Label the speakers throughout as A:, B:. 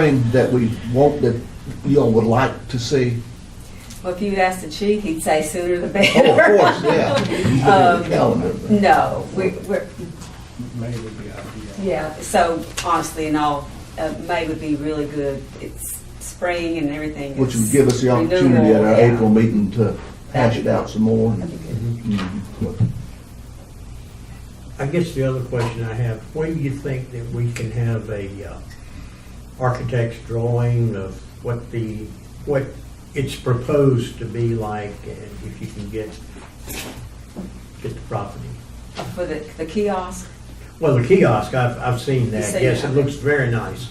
A: thing that we want, that y'all would like to see?
B: Well, if you asked the chief, he'd say sooner the
A: Oh,
B: better.
A: of course, yeah. You put it in the
B: Um,
A: calendar.
B: No, we, we're,
C: May would be ideal.
B: yeah, so honestly, in all, uh, May would be really good. It's spring and everything.
A: Which would
B: is
A: give us the opportunity at
B: renewable,
A: our
B: yeah.
A: April meeting to hash it out some more.
B: That'd be good.
A: Mhm.
D: I guess the other question I have, when do you think that we can have a uh, architect's drawing of what the, what it's proposed to be like, and if you can get, get the property?
B: For the, the kiosk,
D: Well, the kiosk, I've, I've seen
B: You
D: that,
B: see
D: yes, it
B: that?
D: looks very nice,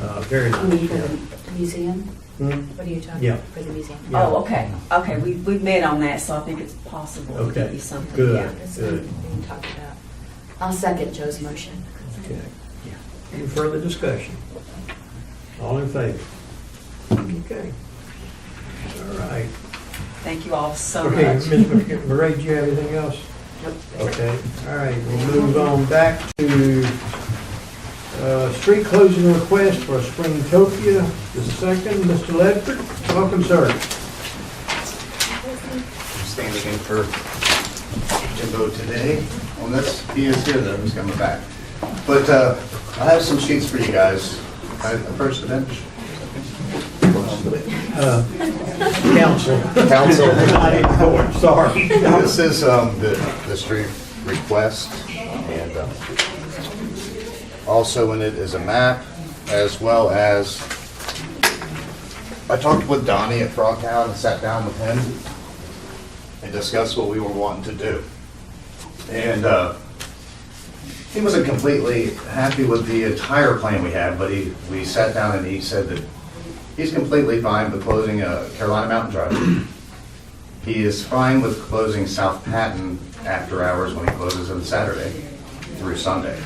D: Uh, very
E: You mean
D: nice.
E: for
D: yeah.
E: the museum?
D: Hmm?
E: What are you talking
D: Yeah.
E: about for the museum?
D: Yeah.
B: oh, okay, okay, we, we met on that, so I think it's possible it could
D: Okay,
B: be something.
D: good.
B: yeah.
E: That's what we talked about. I'll second Joe's motion.
D: Okay. Yeah. Any further discussion? All in favor? Okay. All right.
B: Thank you all so
D: Okay,
B: much.
D: Ms. Mc- Murray, do you have anything else? Okay, all right, we'll move on back to uh, street closing request for Springtopia the second. Mr. Ledford, welcome, sir.
F: standing in for Jimbo today on this. He is here though, he's coming back. But uh, I have some sheets for you guys. I- First, and then,
D: Council.
F: council.
D: I didn't know it, sorry.
F: This is um, the the street request, and um, also in it is a map, as well as, I talked with Donnie at Frogtown and sat down with him and discussed what we were wanting to do. And uh, he wasn't completely happy with the entire plan we had, but he, we sat down and he said that he's completely fine with closing uh, Carolina Mountain Drive. He is fine with closing South Patton after hours when he closes on Saturday through Sunday.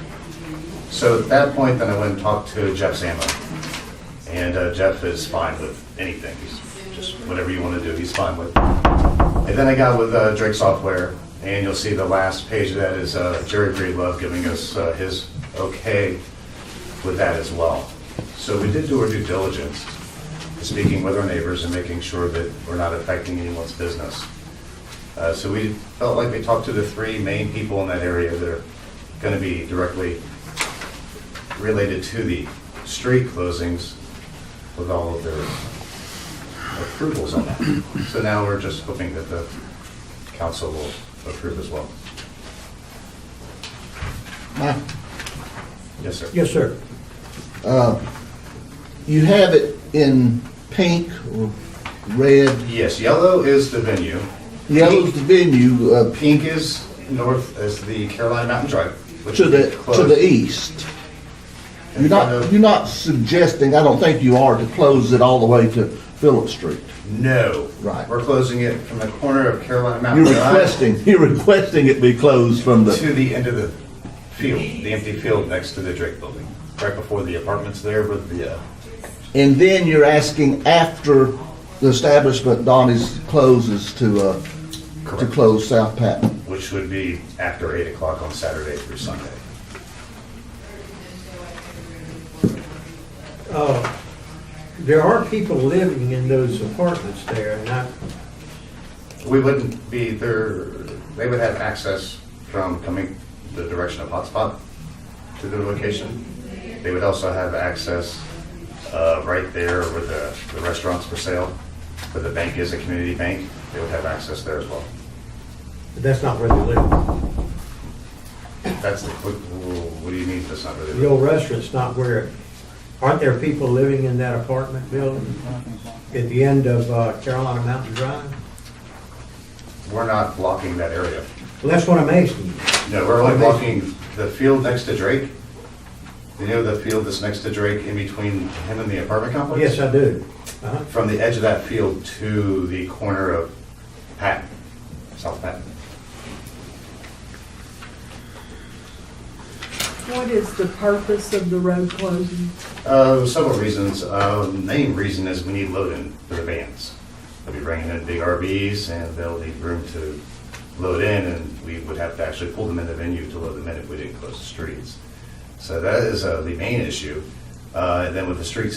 F: So at that point, then I went and talked to Jeff Samo. And uh, Jeff is fine with anything, he's just whatever you want to do, he's fine with. And then I got with uh, Drake Software, and you'll see the last page of that is uh, Jerry Breedlove giving us uh, his okay with that as well. So we did do our due diligence speaking with our neighbors and making sure that we're not affecting anyone's business. Uh, So we felt like we talked to the three main people in that area that are going to be directly related to the street closings with all of their approvals on that. So now we're just hoping that the council will approve as well.
A: Mike,
F: Yes, sir.
D: Yes, sir.
A: You have it in pink or red,
F: Yes, yellow is the venue.
A: yellow's the venue, uh,
F: Pink is north, is the Carolina Mountain Drive. which
A: to
F: will be
A: the, to
F: closed.
A: the east. You're
F: In front
A: not,
F: of-
A: you're not suggesting, I don't think you are, to close it all the way to Phillips Street.
F: No.
A: Right.
F: We're closing it from the corner of Carolina Mountain.
A: You're
F: Drive
A: requesting, you're requesting it be closed from the,
F: To the end of the field, the empty field next to the Drake Building, right before the apartments there with the, uh,
A: and then you're asking after the establishment Donnie's closes to, uh, to
F: Correct.
A: close South Patton.
F: which would be after eight o'clock on Saturday through Sunday.
D: Uh, There are people living in those apartments there, and I,
F: We wouldn't be there, they would have access from coming the direction of Hotspot to their location. They would also have access uh, right there where the the restaurants for sale, where the bank is, a community bank. They would have access there as well.
D: that's not where they live.
F: That's the, what, what do you mean that's not really?
D: The old restaurant's not where, aren't there people living in that apartment building at the end of uh, Carolina Mountain Drive?
F: We're not blocking that area.
D: Well, that's what I'm asking you.
F: No, we're only blocking the field next to Drake. You know the field that's next to Drake in between him and the apartment complex?
D: Yes, I do. Uh-huh.
F: From the edge of that field to the corner of Patton, South Patton.
G: What is the purpose of the road closing?
F: Uh, several reasons. Uh, main reason is we need loading for the vans. They'll be bringing in big RVs and they'll need room to load in and we would have to actually pull them in the venue to load them in if we didn't close the streets. So that is, uh, the main issue. Uh, and then with the streets